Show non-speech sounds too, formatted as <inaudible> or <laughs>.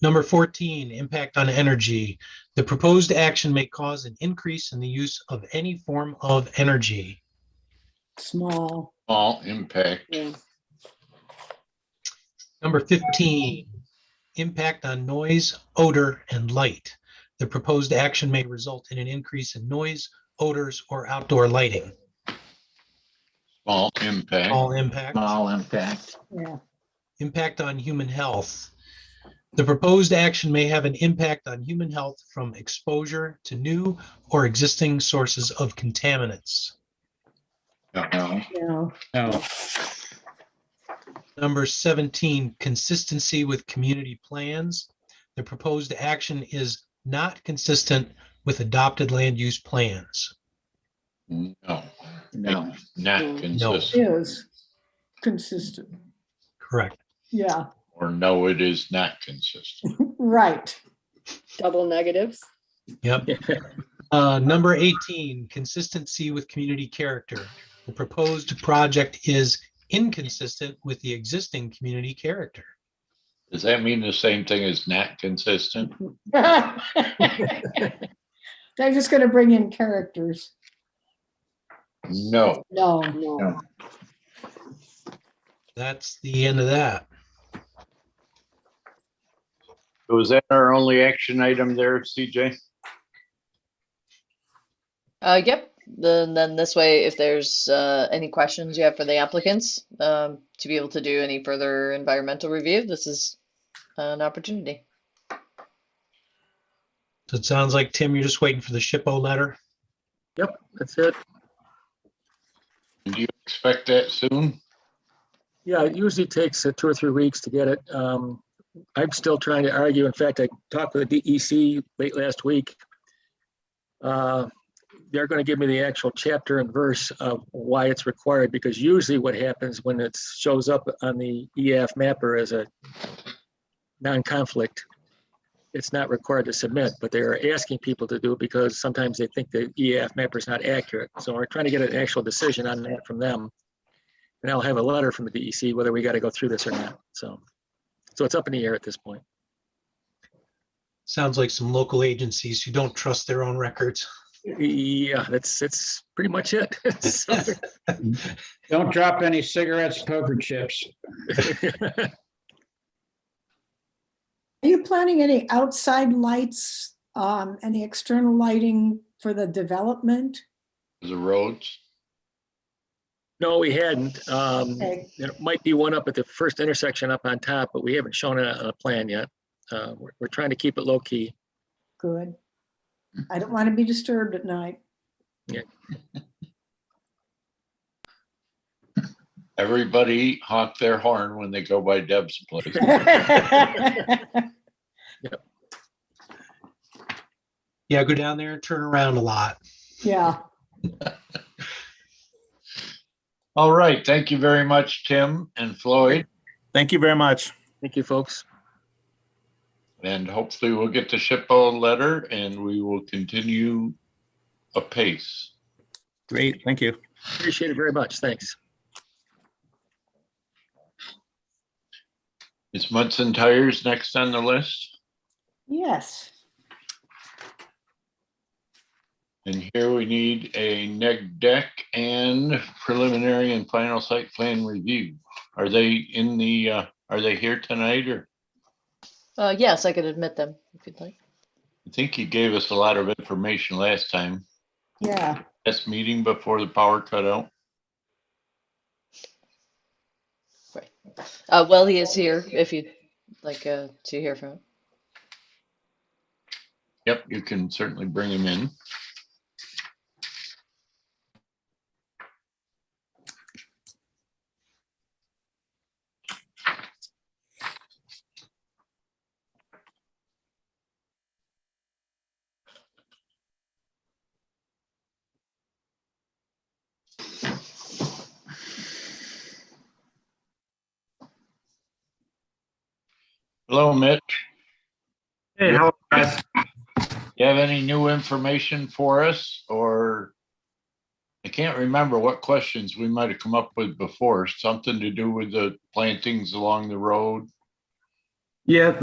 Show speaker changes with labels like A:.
A: Number 14, impact on energy. The proposed action may cause an increase in the use of any form of energy.
B: small,
C: All impact,
B: yeah,
A: Number 15, impact on noise, odor, and light. The proposed action may result in an increase in noise, odors, or outdoor lighting.
C: all impact,
A: All impact.
D: small impact,
B: yeah,
A: Impact on human health. The proposed action may have an impact on human health from exposure to new or existing sources of contaminants.
C: no,
B: no,
E: no,
A: Number 17, consistency with community plans. The proposed action is not consistent with adopted land use plans.
C: no,
D: no,
C: not
B: No.
C: consistent,
B: is consistent,
A: Correct.
B: yeah,
C: or no, it is not consistent.
B: right.
F: double
B: <laughs>
F: negatives.
A: Yep. Uh, Number 18, consistency with community character. The proposed project is inconsistent with the existing community character.
C: Does that mean the same thing as not consistent?
B: They're just gonna bring in characters,
C: No,
B: no, no,
D: no.
A: That's the end of that.
C: was that our only action item there, CJ?
F: Uh, yep, then, then this way, if there's, uh, any questions you have for the applicants, um, to be able to do any further environmental review, this is an opportunity.
A: So it sounds like, Tim, you're just waiting for the SHPO letter.
G: That's it.
C: Do you expect that soon?
G: Yeah, it usually takes uh, two or three weeks to get it. Um, I'm still trying to argue. In fact, I talked with the DEC late last week. Uh, They're going to give me the actual chapter and verse of why it's required, because usually what happens when it shows up on the EAF mapper as a non-conflict, it's not required to submit, but they are asking people to do it because sometimes they think the EAF mapper is not accurate. So we're trying to get an actual decision on that from them. And I'll have a letter from the DEC whether we got to go through this or not. So, so it's up in the air at this point.
A: Sounds like some local agencies who don't trust their own records.
G: Yeah, that's, that's pretty much it. <laughs> So-
E: don't drop any cigarettes, poker chips.
B: Are you planning any outside lights, um, any external lighting for the development?
C: The roads?
G: No, we hadn't. Um,
B: Okay,
G: There might be one up at the first intersection up on top, but we haven't shown it on a plan yet. Uh, we're, we're trying to keep it low key.
B: good. I don't want to be disturbed at night. <laughs>
C: Everybody honk their horn when they go by Deb's <laughs> place.
A: Yeah, go down there and turn around a lot.
B: Yeah,
C: All right, thank you very much, Tim and Floyd,
H: Thank you very much.
G: Thank you, folks.
C: and hopefully we'll get the SHPO letter and we will continue apace.
H: Great, thank you.
G: Appreciate it very much. Thanks.
C: Is Munson Tires next on the list?
B: yes,
C: And here we need a neg deck and preliminary and final site plan review. Are they in the, uh, are they here tonight or?
F: Uh, yes, I could admit them if you'd like.
C: I think you gave us a lot of information last time,
B: yeah,
C: last meeting before the power cutout.
F: Uh, well, he is here if you'd like, uh, to hear from him.
C: Yep, you can certainly bring him in. Hello, Mitch.
I: Hey, how are you guys?
C: You have any new information for us or? I can't remember what questions we might have come up with before, something to do with the plantings along the road.
I: Yeah,